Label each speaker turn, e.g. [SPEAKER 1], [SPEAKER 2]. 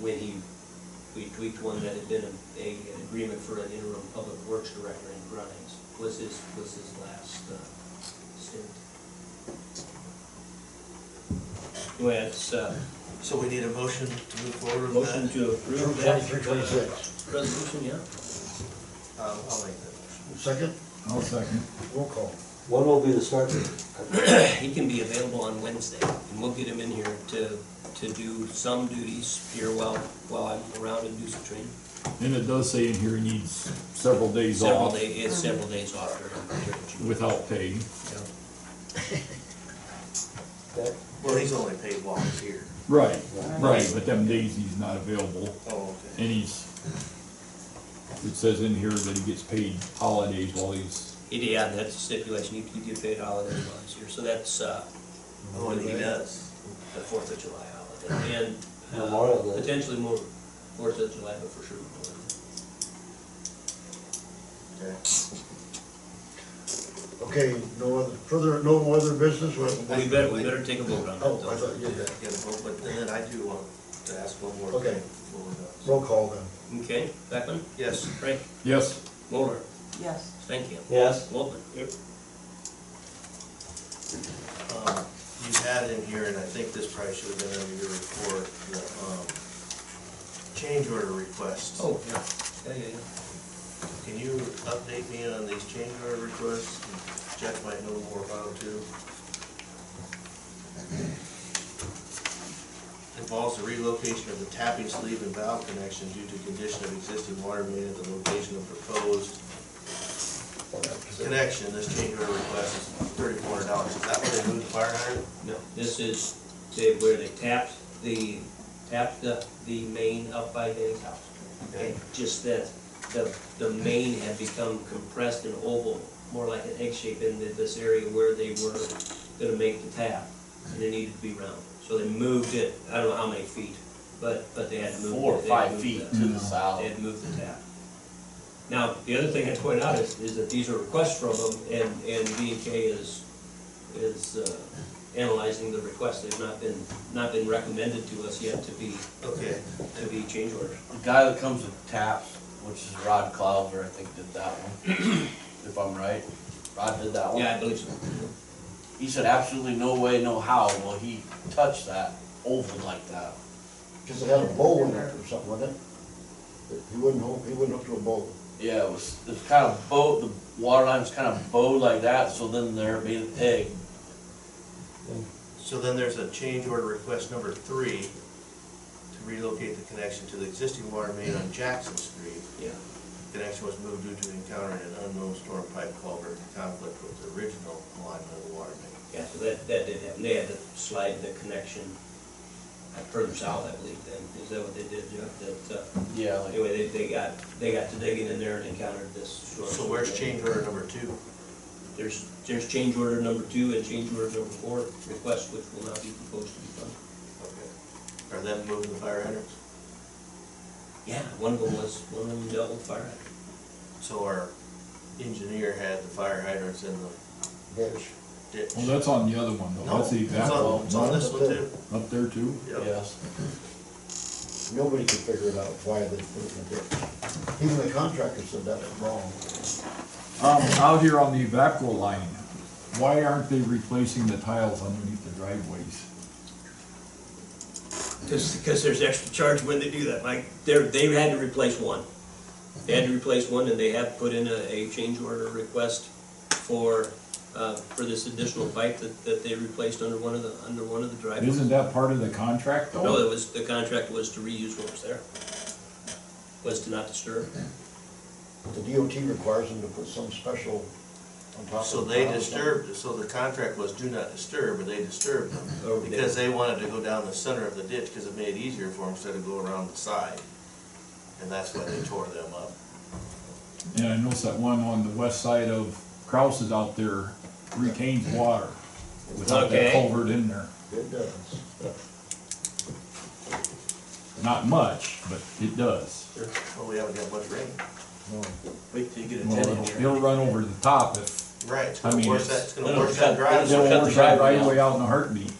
[SPEAKER 1] when he, we tweaked one that had been a- a, an agreement for an interim public works director in Grimes, was his, was his last, uh, stint. Anyway, it's, uh,
[SPEAKER 2] So we need a motion to move forward with that?
[SPEAKER 1] motion to approve that.
[SPEAKER 3] Twenty-three, twenty-six.
[SPEAKER 1] uh, Resolution, yeah.
[SPEAKER 2] Uh, I'll make that motion.
[SPEAKER 3] Second,
[SPEAKER 4] I'll second.
[SPEAKER 3] roll call.
[SPEAKER 5] When will be the start date?
[SPEAKER 1] He can be available on Wednesday, and we'll get him in here to, to do some duties here while, while I'm around and do some training.
[SPEAKER 4] And it does say in here he needs several days
[SPEAKER 1] Several
[SPEAKER 4] off
[SPEAKER 1] day, it's several days off during, during June.
[SPEAKER 4] without pay.
[SPEAKER 5] Okay.
[SPEAKER 2] Well, he's only paid while he's here.
[SPEAKER 4] Right, right, but them days he's not available,
[SPEAKER 2] Oh, okay.
[SPEAKER 4] and he's, it says in here that he gets paid holidays while he's,
[SPEAKER 1] Yeah, and that's a stipulation, you, you get paid holiday once here, so that's, uh,
[SPEAKER 2] Oh, and he does.
[SPEAKER 1] the Fourth of July holiday, and. uh,
[SPEAKER 5] Memorial Day.
[SPEAKER 1] Potentially more, Fourth of July, but for sure. Memorial Day.
[SPEAKER 2] Okay.
[SPEAKER 3] Okay, no other, further, no more other business, what?
[SPEAKER 1] We better, we better take a vote on that.
[SPEAKER 3] Oh,
[SPEAKER 1] though.
[SPEAKER 3] I thought you did that.
[SPEAKER 2] Yeah, well, but then I do want to ask one more
[SPEAKER 3] Okay.
[SPEAKER 2] thing. before we're done.
[SPEAKER 3] Roll call then.
[SPEAKER 1] Okay, Beckman,
[SPEAKER 2] Yes,
[SPEAKER 1] Frank,
[SPEAKER 4] yes,
[SPEAKER 1] Moller,
[SPEAKER 6] Yes.
[SPEAKER 1] Stankham,
[SPEAKER 5] Yes,
[SPEAKER 1] Wolfman. Yep.
[SPEAKER 2] um, you had in here, and I think this probably should have been under your report, the, um, change order requests.
[SPEAKER 1] Oh, yeah, yeah, yeah, yeah.
[SPEAKER 2] Can you update me on these change order requests? Jack might know more about them too. Involves the relocation of the tapping sleeve and valve connection due to condition of existing water main at the location of proposed connection. This change order request is thirty-four hundred dollars. Is that what they moved the fire hydrant?
[SPEAKER 1] No, this is, they, where they tapped the, tapped the, the main up by Danny's house.
[SPEAKER 2] Okay.
[SPEAKER 1] And just that, the, the main had become compressed and oval, more like an egg shape in th- this area where they were gonna make the tap. And it needed to be round, so they moved it, I don't know how many feet, but, but they had to move.
[SPEAKER 7] four or
[SPEAKER 1] they had
[SPEAKER 7] five
[SPEAKER 1] moved
[SPEAKER 7] feet
[SPEAKER 1] the-
[SPEAKER 7] to the south.
[SPEAKER 1] They had moved the tap. Now, the other thing I'd point out is, is that these are requests from them, and, and B and K is, is uh, analyzing the request. They've not been, not been recommended to us yet to be,
[SPEAKER 2] Okay.
[SPEAKER 1] to be change orders.
[SPEAKER 7] The guy that comes with taps, which is Rod Clouder, I think did that one, if I'm right. Rod did that one.
[SPEAKER 1] Yeah, I believe so.
[SPEAKER 7] He said absolutely no way, no how will he touch that oval like that.
[SPEAKER 3] Cause it had a bowl in it or something, wasn't it? He wouldn't hook, he wouldn't hook to a bowl.
[SPEAKER 7] Yeah, it was, it was kind of bowed, the water line was kind of bowed like that, so then there made an egg.
[SPEAKER 2] So then there's a change order request number three to relocate the connection to the existing water main on Jackson Street.
[SPEAKER 1] Yeah.
[SPEAKER 2] Connection was moved due to encountering an unknown storm pipe culvert in conflict with the original alignment of the water main.
[SPEAKER 1] Yeah, so that, that did happen. They had to slide the connection uh, further south, I believe, then. Is that what they did, Jeff? That, uh,
[SPEAKER 7] Yeah, like,
[SPEAKER 1] anyway, they, they got, they got to digging in there and encountered this storm.
[SPEAKER 2] So where's change order number two?
[SPEAKER 1] There's, there's change order number two and change order number four requests, which will not be proposed to be funded.
[SPEAKER 2] Okay. Are them moving the fire hydrants?
[SPEAKER 1] Yeah, one of them was, one of them dealt with fire hydrant.
[SPEAKER 2] So our engineer had the fire hydrants in the
[SPEAKER 3] Ditch.
[SPEAKER 2] ditch?
[SPEAKER 4] well, that's on the other one though,
[SPEAKER 2] No,
[SPEAKER 4] that's the
[SPEAKER 2] it's
[SPEAKER 4] exact
[SPEAKER 2] on, it's on
[SPEAKER 4] one,
[SPEAKER 2] this one too?
[SPEAKER 4] up there too.
[SPEAKER 2] Yep.
[SPEAKER 7] yes.
[SPEAKER 3] Nobody could figure it out why they put it in the ditch. Even the contractor said that was wrong.
[SPEAKER 4] Um, out here on the evacual line, why aren't they replacing the tiles underneath the driveways?
[SPEAKER 1] Because, because there's extra charge when they do that, Mike. They're, they had to replace one. They had to replace one, and they have put in a, a change order request for, uh, for this additional pipe that, that they replaced under one of the, under one of the driveways.
[SPEAKER 4] Isn't that part of the contract though?
[SPEAKER 1] No, it was, the contract was to reuse what was there, was to not disturb.
[SPEAKER 3] The DOT requires them to put some special on top of.
[SPEAKER 2] So
[SPEAKER 3] the
[SPEAKER 2] they
[SPEAKER 3] ground.
[SPEAKER 2] disturbed, so the contract was do not disturb, but they disturbed them.
[SPEAKER 1] Or they-
[SPEAKER 2] Because they wanted to go down the center of the ditch, because it made it easier for them instead of go around the side. And that's why they tore them up.
[SPEAKER 4] And I noticed that one on the west side of Krause's out there retains water without
[SPEAKER 1] Okay.
[SPEAKER 4] that culvert in there.
[SPEAKER 3] It does.
[SPEAKER 4] Not much, but it does.
[SPEAKER 2] Well, we haven't got much rain.
[SPEAKER 3] No.
[SPEAKER 7] Wait till you get a
[SPEAKER 4] Well,
[SPEAKER 7] ten
[SPEAKER 4] it'll,
[SPEAKER 7] inch.
[SPEAKER 4] it'll run over the top if,
[SPEAKER 2] Right, it's
[SPEAKER 4] I
[SPEAKER 2] gonna
[SPEAKER 4] mean,
[SPEAKER 2] worse that,
[SPEAKER 4] it's-
[SPEAKER 2] it's gonna
[SPEAKER 7] it'll
[SPEAKER 2] worse that
[SPEAKER 7] cut-
[SPEAKER 2] drive.
[SPEAKER 4] it'll
[SPEAKER 7] cut
[SPEAKER 4] wash
[SPEAKER 7] the
[SPEAKER 4] that
[SPEAKER 7] driveway
[SPEAKER 4] right away out in a heartbeat.